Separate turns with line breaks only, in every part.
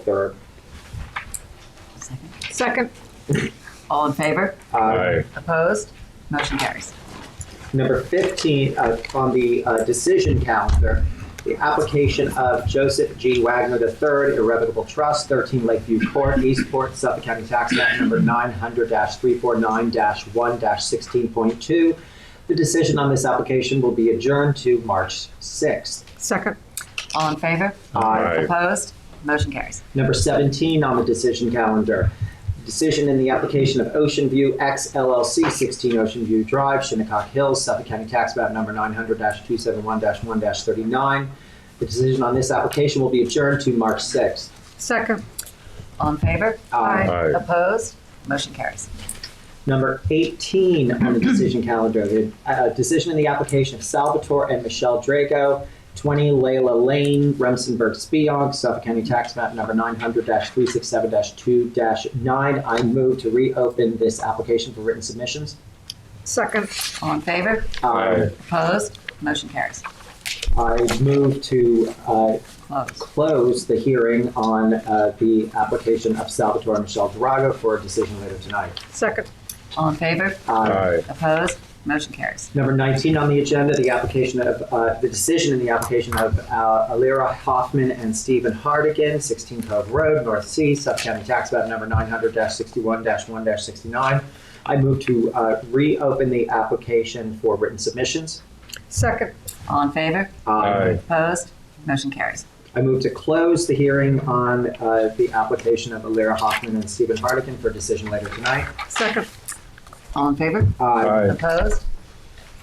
Third.
Second.
Second.
All in favor?
Uh,
Aye.
Opposed? Motion carries.
Number 15, uh, on the uh, decision calendar, the application of Joseph G. Wagner III, Irrevocable Trust, 13 Lakeview Court, Eastport, Suffolk County Tax Map Number 900-349-1-16.2. The decision on this application will be adjourned to March 6th.
Second.
All in favor?
Uh,
Aye.
Opposed? Motion carries.
Number 17 on the decision calendar, decision in the application of Ocean View X LLC, 16 Ocean View Drive, Shinnecock Hills, Suffolk County Tax Map Number 900-271-1-39. The decision on this application will be adjourned to March 6th.
Second.
All in favor?
Uh,
Aye.
Opposed? Motion carries.
Number 18 on the decision calendar, the uh, decision in the application of Salvatore and Michelle Drago, 20 Layla Lane, Remsenburg, Speonk, Suffolk County Tax Map Number 900-367-2-9. I move to reopen this application for written submissions.
Second.
All in favor?
Uh,
Opposed? Motion carries.
I move to uh,
Closed.
close the hearing on uh, the application of Salvatore and Michelle Drago for a decision later tonight.
Second.
All in favor?
Uh,
Aye.
Opposed? Motion carries.
Number 19 on the agenda, the application of, uh, the decision in the application of uh, Alira Hoffman and Stephen Hardigan, 16 Cove Road, North Sea, Suffolk County Tax Map Number 900-61-1-69. I move to uh, reopen the application for written submissions.
Second.
All in favor?
Um,
Aye.
Opposed? Motion carries.
I move to close the hearing on uh, the application of Alira Hoffman and Stephen Hardigan for decision later tonight.
Second.
All in favor?
Uh,
Aye.
Opposed?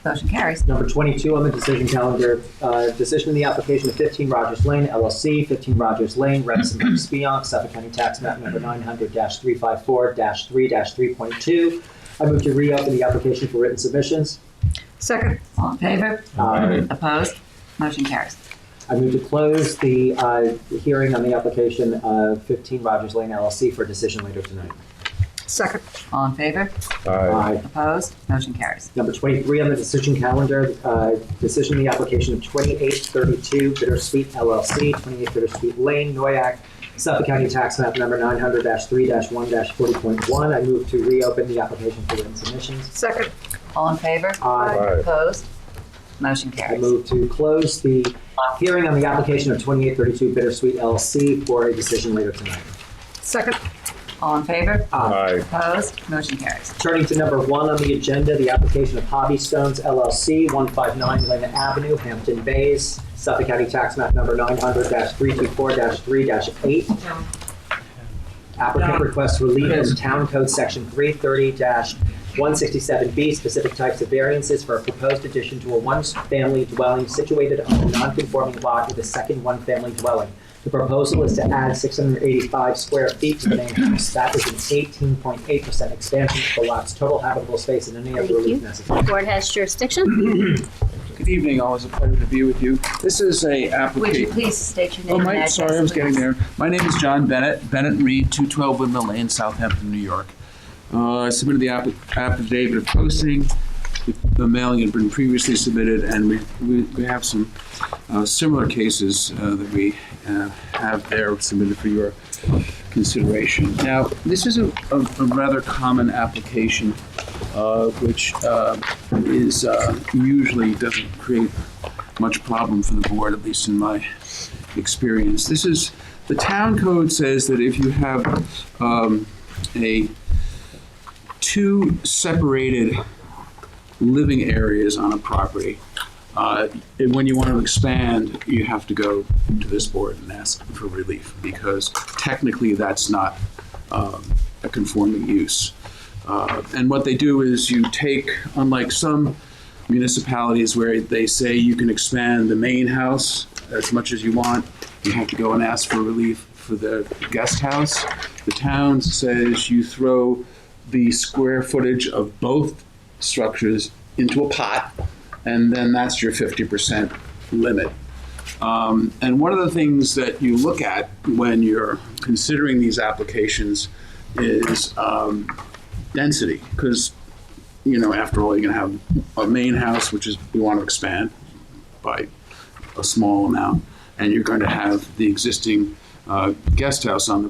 Motion carries.
Number 22 on the decision calendar, uh, decision in the application of 15 Rogers Lane LLC, 15 Rogers Lane, Remsen, Speonk, Suffolk County Tax Map Number 900-354-3-3.2. I move to reopen the application for written submissions.
Second.
All in favor?
Uh,
Opposed? Motion carries.
I move to close the uh, hearing on the application of 15 Rogers Lane LLC for decision later tonight.
Second.
All in favor?
Aye.
Aye.
Opposed? Motion carries.
Number 23 on the decision calendar, uh, decision in the application of 2832 Bittersweet LLC, 28 Bittersweet Lane, Noyak, Suffolk County Tax Map Number 900-3-1-40.1. I move to reopen the application for written submissions.
Second.
All in favor?
Aye.
Aye.
Opposed? Motion
I
carries.
move to close the hearing on the application of 2832 Bittersweet LLC for a decision later tonight.
Second.
All in favor?
Uh,
Aye.
Opposed? Motion carries.
Turning to number one on the agenda, the application of Hobby Stones LLC, 159 Lynn Avenue, Hampton Bays, Suffolk County Tax Map Number 900-324-3-8. Applicant requests relief in Town Code Section 330-167B, specific types of variances for a proposed addition to a one-family dwelling situated on a non-conforming lot with a second one-family dwelling. The proposal is to add 685 square feet to the main house. That is an 18.8% expansion of the lot's total habitable space and any other
Thank
relief
you.
necessary.
Board has jurisdiction.
Good evening, always a pleasure to be with you. This is a
Would you
application.
please state your name
Oh,
and
Mike,
address,
sorry, I was
please?
getting there. My name is John Bennett, Bennett and Reed, 212 Windmill Lane, Southampton, New York. Uh, I submitted the app- affidavit of posting. The- The mailing had been previously submitted, and we- we we have some uh, similar cases uh, that we uh, have there submitted for your consideration. Now, this is a a- a rather common application, uh, which uh, is uh, usually doesn't create much problem for the board, at least in my experience. This is, the town code says that if you have um, a, two separated living areas on a property, uh, and when you want to expand, you have to go to this board and ask for relief, because technically that's not um, a conforming use. Uh, And what they do is you take, unlike some municipalities where they say you can expand the main house as much as you want, you have to go and ask for relief for the guest house. The town says you throw the square footage of both structures into a pot, and then that's your 50% limit. Um, and one of the things that you look at when you're considering these applications is um, density, because you know, after all, you're gonna have a main house, which is we want to expand by a small amount, and you're going to have the existing uh, guest house on the